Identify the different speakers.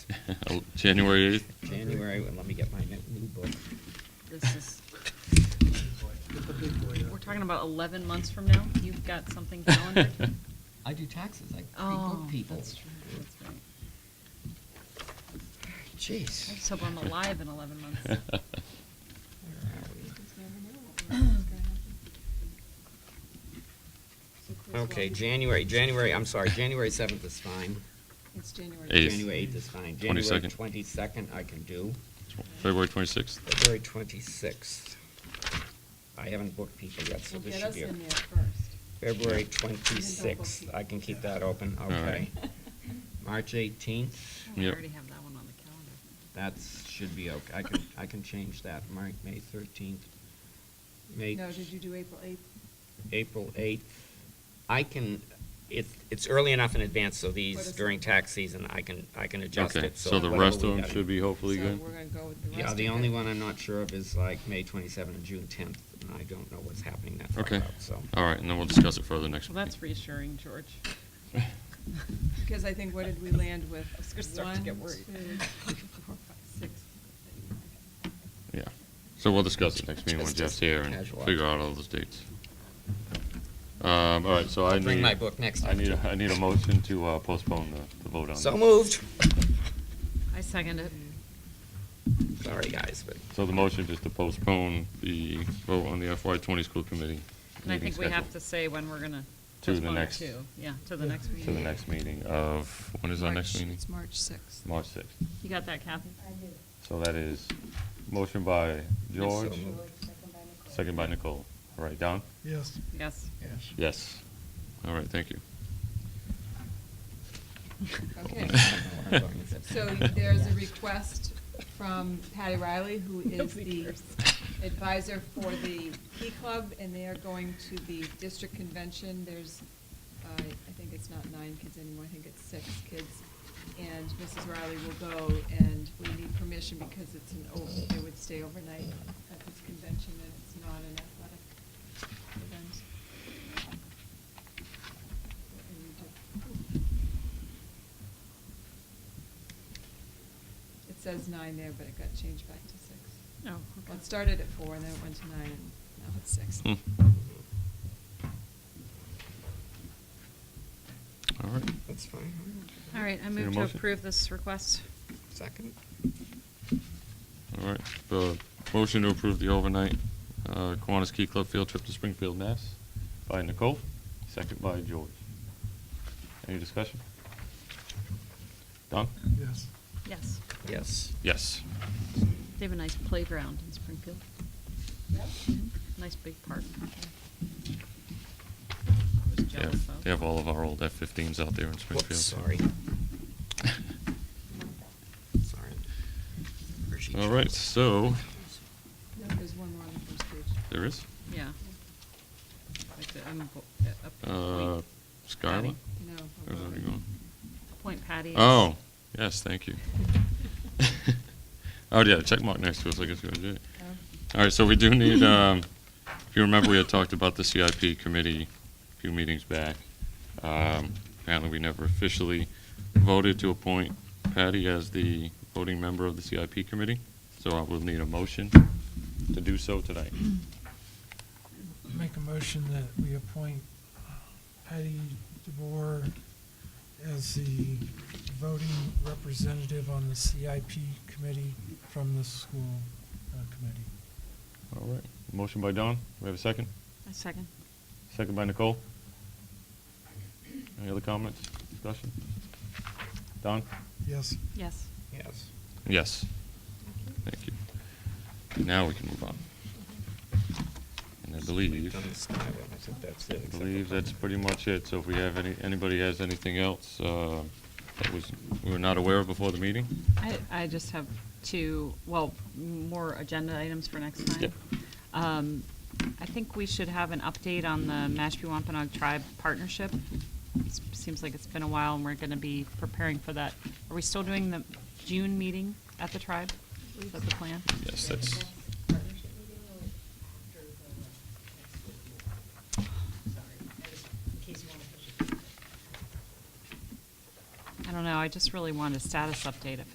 Speaker 1: Oh, January 8th?
Speaker 2: January, let me get my new book.
Speaker 3: This is, we're talking about 11 months from now? You've got something calendared?
Speaker 2: I do taxes, I pre-book
Speaker 3: Oh,
Speaker 2: people.
Speaker 3: that's true, that's right. I just
Speaker 2: Jeez.
Speaker 3: hope I'm alive in 11 months.
Speaker 2: Where are we? Okay, January, January, I'm sorry, January 7th is fine.
Speaker 4: It's January.
Speaker 1: Eighth.
Speaker 2: January 8th is fine.
Speaker 1: 22nd.
Speaker 2: January 22nd I can do.
Speaker 1: February 26th?
Speaker 2: February 26th. I haven't booked people yet, so
Speaker 4: We'll
Speaker 2: this
Speaker 4: get
Speaker 2: should
Speaker 4: us
Speaker 2: be.
Speaker 4: in there first.
Speaker 2: February
Speaker 4: Even though
Speaker 2: 26th,
Speaker 4: booked.
Speaker 2: I can keep that open,
Speaker 1: All
Speaker 2: okay.
Speaker 1: right.
Speaker 2: March 18th,
Speaker 3: I
Speaker 1: Yep.
Speaker 3: already have that one on the calendar.
Speaker 2: that should be okay, I can, I can change that. March, May 13th, May
Speaker 4: No, did you do April 8th?
Speaker 2: April 8th. I can, it's, it's early enough in advance, so
Speaker 4: What
Speaker 2: these,
Speaker 4: is-
Speaker 2: during tax season, I can, I can adjust
Speaker 1: Okay,
Speaker 2: it.
Speaker 1: so the
Speaker 2: whatever
Speaker 1: rest
Speaker 2: we
Speaker 1: of them
Speaker 2: got.
Speaker 1: should be hopefully
Speaker 4: So
Speaker 1: good?
Speaker 4: we're going to go with the rest
Speaker 2: Yeah,
Speaker 4: of
Speaker 2: the
Speaker 4: it.
Speaker 2: only one I'm not sure of is like May 27th and June 10th, and I don't know what's happening that far
Speaker 1: Okay,
Speaker 2: out, so.
Speaker 1: all right, and then we'll discuss it further next.
Speaker 3: Well, that's reassuring, George.
Speaker 4: Because I think, what did we land with?
Speaker 3: I was gonna start to get
Speaker 4: One,
Speaker 3: worried.
Speaker 4: two, three, four, five, six.
Speaker 1: Yeah, so we'll discuss it next meeting when
Speaker 2: Just-
Speaker 1: Jeff's
Speaker 2: just
Speaker 1: here and
Speaker 2: casual.
Speaker 1: figure out all those dates. Um, all right, so I
Speaker 2: I'll
Speaker 1: need.
Speaker 2: bring my book next
Speaker 1: I
Speaker 2: time,
Speaker 1: need,
Speaker 2: too.
Speaker 1: a- I need a motion to uh, postpone the, the vote on.
Speaker 2: So
Speaker 1: this.
Speaker 2: moved.
Speaker 3: I second it.
Speaker 2: Sorry, guys, but.
Speaker 1: So the motion is to postpone the vote on the FY twenty school committee.
Speaker 3: And I
Speaker 1: meeting
Speaker 3: think we have
Speaker 1: schedule
Speaker 3: to say when we're going to
Speaker 1: To the
Speaker 3: postpone it
Speaker 1: next-
Speaker 3: to. Yeah, to the next meeting.
Speaker 1: To the next meeting of, when is our next meeting?
Speaker 4: It's March 6th.
Speaker 1: March sixth.
Speaker 3: You got that, Kathy?
Speaker 1: So that is motion by George,
Speaker 2: moved.
Speaker 1: second by Nicole. All right, Don?
Speaker 5: Yes.
Speaker 3: Yes.
Speaker 5: Yes.
Speaker 1: Yes. All right, thank you.
Speaker 4: Okay. So
Speaker 1: Yeah.
Speaker 4: there's a request from Patty Riley, who is
Speaker 3: Nobody
Speaker 4: the
Speaker 3: cares.
Speaker 4: advisor for the P Club, and they are going to the district convention. There's, uh, I think it's not nine kids anymore, I think it's six kids. And Mrs. Riley will go, and we need permission because it's an, over- they would stay overnight at this convention, and it's not an athletic event. And we do- It says nine there, but it got changed back to six.
Speaker 3: Oh, okay.
Speaker 4: Well, it started at four, and then it went to nine, and now it's six.
Speaker 1: Hmm. All right.
Speaker 2: That's fine.
Speaker 3: All right, I
Speaker 1: Is there a
Speaker 3: move to
Speaker 1: motion?
Speaker 3: approve this request.
Speaker 2: Second?
Speaker 1: All right, the motion to approve the overnight uh, Kiwanis Key Club field trip to Springfield, Mass. by Nicole, second by George. Any discussion? Don?
Speaker 5: Yes.
Speaker 3: Yes.
Speaker 2: Yes.
Speaker 1: Yes.
Speaker 3: They have a nice playground in Springfield. Mhm. Nice big park. I was
Speaker 1: They
Speaker 3: jealous
Speaker 1: have,
Speaker 3: of.
Speaker 1: they have all of our old F-15s out there in Springfield.
Speaker 2: Whoops, sorry. Sorry. Appreciate
Speaker 1: All
Speaker 2: you.
Speaker 1: right, so,
Speaker 4: No, There's one more on the first page.
Speaker 1: there is
Speaker 3: Yeah. Like the- I'm bo- uh, up-
Speaker 1: uh,
Speaker 3: appoint
Speaker 1: Skylar?
Speaker 3: Patty.
Speaker 4: No.
Speaker 1: Or is that already gone?
Speaker 3: Appoint Patty. as-
Speaker 1: Oh, yes, thank you. Oh, yeah, check mark next to us, I guess you already did it. All right, so we do need, um, if you remember, we had talked about the CIP committee a few meetings back. Um, Apparently, we never officially voted to appoint Patty as the voting member of the CIP committee, so I will need a motion to do so tonight.
Speaker 5: Make a motion that we appoint uh, Patty DeBoer as the voting representative on the CIP committee from the school uh, committee.
Speaker 1: All right, motion by Don, we have a second?
Speaker 3: A second.
Speaker 1: Second by Nicole. Any other comments, discussion? Don?
Speaker 5: Yes.
Speaker 3: Yes.
Speaker 2: Yes.
Speaker 1: Yes. Thank you. Now we can move on. And I believe,
Speaker 2: Done the Skyway, I think that's it,
Speaker 1: I
Speaker 2: except for
Speaker 1: believe that's
Speaker 2: public.
Speaker 1: pretty much it. So if we have any, anybody has anything else uh, that was, we were not aware of before the meeting?
Speaker 3: I, I just have two, well, more agenda items for next time. Um, I think we should have an update on the Mashpee Wampanoag Tribe Partnership. It Seems like it's been a while, and we're gonna be preparing for that. Are we still doing the June meeting at the tribe? Is that the plan?
Speaker 1: Yes, that's,
Speaker 3: I don't know, I just really want a status update if